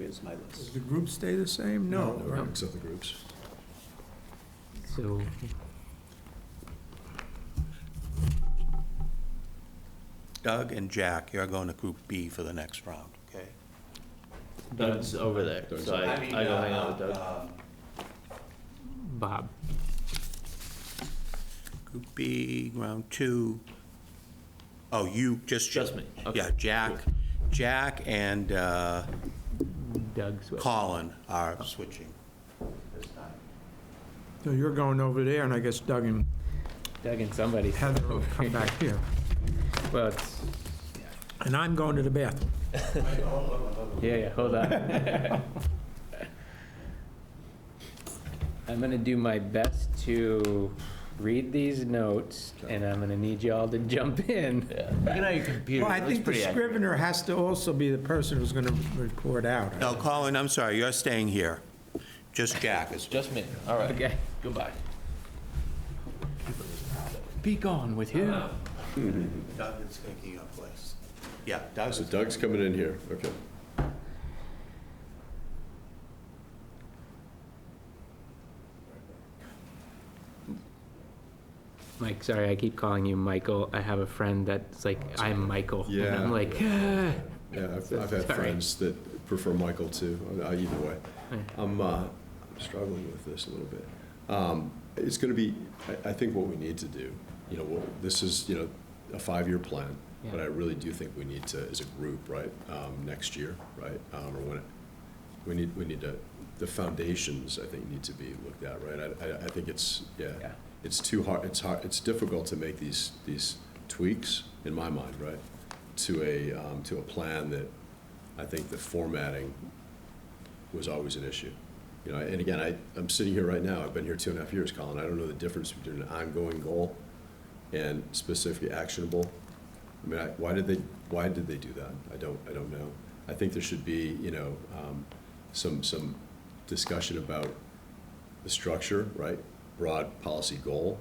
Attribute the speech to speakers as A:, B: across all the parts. A: is my
B: Does
A: list.
B: the group stay the same? No. right.
C: Except the groups.
D: So,
A: Doug and Jack, you're going to Group B for the next round, okay?
D: Doug's over there, so I, I go hang out
A: uh,
D: with Doug. Bob.
A: Group B, round two. Oh, you, just.
D: Just me, okay.
A: Yeah, Jack, Jack and uh,
D: Doug Swift.
A: Colin are switching this time.
B: So you're going over there, and I guess Doug and
D: Doug and somebody.
B: Heather will come back here.
D: Well, it's,
B: And I'm going to the bathroom.
D: yeah, yeah, hold on. I'm gonna do my best to read these notes, and I'm gonna need y'all to jump in.
E: Look at your computer.
B: Well, I think the scrivener has to also be the person who's going to report out.
A: No, Colin, I'm sorry, you're staying here. Just Jack is.
E: Just me. All right.
D: Okay,
E: Goodbye.
D: be gone with you.
A: Doug is taking your place. Yeah, Doug's.
C: So Doug's coming in here, okay.
D: Mike, sorry, I keep calling you Michael. I have a friend that's like, I'm Michael. And
C: Yeah.
D: I'm like, "Ah."
C: Yeah, I've, I've
D: Sorry.
C: had friends that prefer Michael too, uh, either way. I'm, uh, I'm struggling with this a little bit. Um, It's gonna be, I, I think what we need to do, you know, what- this is, you know, a five-year plan, but
D: Yeah.
C: I really do think we need to, as a group, right, um, next year, right? um, Or when, it- we need, we need to, the foundations, I think, need to be looked at, right? I, I, I think it's, yeah,
D: Yeah.
C: it's too hard, it's hard, it's difficult to make these, these tweaks, in my mind, right? To a, um, to a plan that I think the formatting was always an issue. You know, and again, I, I'm sitting here right now, I've been here two and a half years, Colin, I don't know the difference between an ongoing goal and specific actionable. I mean, I, why did they, why did they do that? I don't, I don't know. I think there should be, you know, um, some, some discussion about the structure, right? Broad policy goal,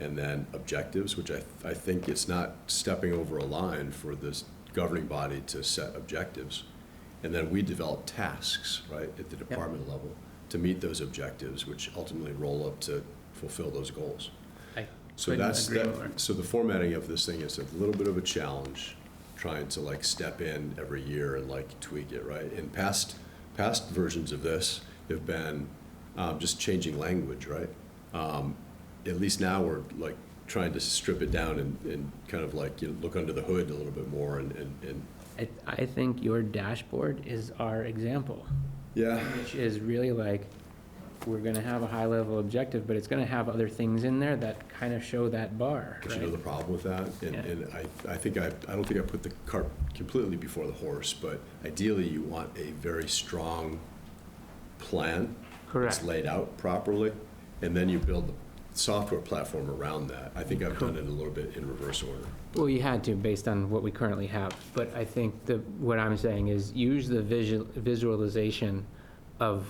C: and then objectives, which I, I think it's not stepping over a line for this governing body to set objectives. And then we develop tasks, right, at the department level to meet those objectives, which ultimately roll up to fulfill those goals.
D: I
C: So
D: couldn't
C: that's,
D: agree
C: that-
D: more.
C: so the formatting of this thing is a little bit of a challenge, trying to like step in every year and like tweak it, right? And past, past versions of this have been um, just changing language, right? Um, At least now we're like trying to strip it down and, and kind of like, you know, look under the hood a little bit more and, and, and,
D: I, I think your dashboard is our example,
C: yeah.
D: which is really like, we're gonna have a high level objective, but it's gonna have other things in there that kind of show that bar,
C: But you know
D: right?
C: the problem with that? And,
D: Yeah.
C: and I, I think I, I don't think I put the cart completely before the horse, but ideally you want a very strong plan.
D: Correct.
C: It's laid out properly, and then you build the software platform around that. I think I've done it a little bit in reverse order.
D: Well, you had to based on what we currently have, but I think the, what I'm saying is use the visual, visualization of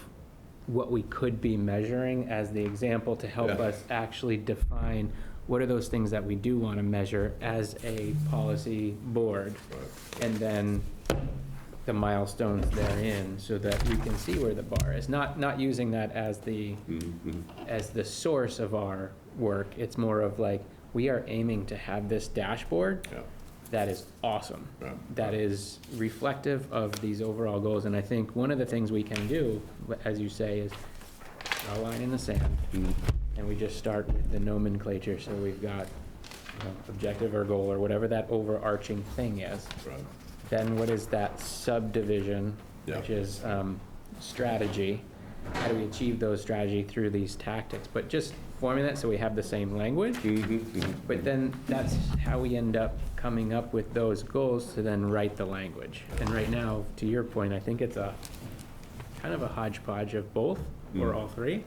D: what we could be measuring as the example to help
C: Yeah.
D: us actually define what are those things that we do want to measure as a policy board? And then the milestones therein so that we can see where the bar is. Not, not using that as the,
C: Mm-hmm.
D: as the source of our work. It's more of like, we are aiming to have this dashboard
C: Yeah.
D: that is awesome.
C: Yeah.
D: That is reflective of these overall goals. And I think one of the things we can do, as you say, is draw a line in the sand.
C: Mm-hmm.
D: And we just start with the nomenclature. So we've got, you know, objective or goal or whatever that overarching thing is.
C: Right.
D: Then what is that subdivision,
C: Yeah.
D: which is um, strategy? How do we achieve those strategy through these tactics? But just forming that so we have the same language. But then that's how we end up coming up with those goals to then write the language. And right now, to your point, I think it's a kind of a hodgepodge of both or all three.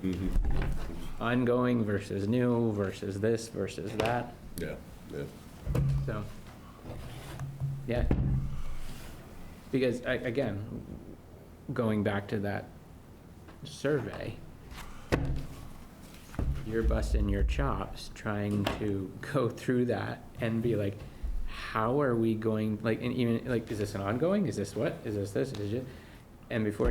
D: Ongoing versus new versus this versus that.
C: Yeah, yeah.
D: So, yeah. Because, a- again, going back to that survey, you're busting your chops trying to go through that and be like, how are we going, like, and even, like, is this an ongoing? Is this what? Is this this? Is it? And before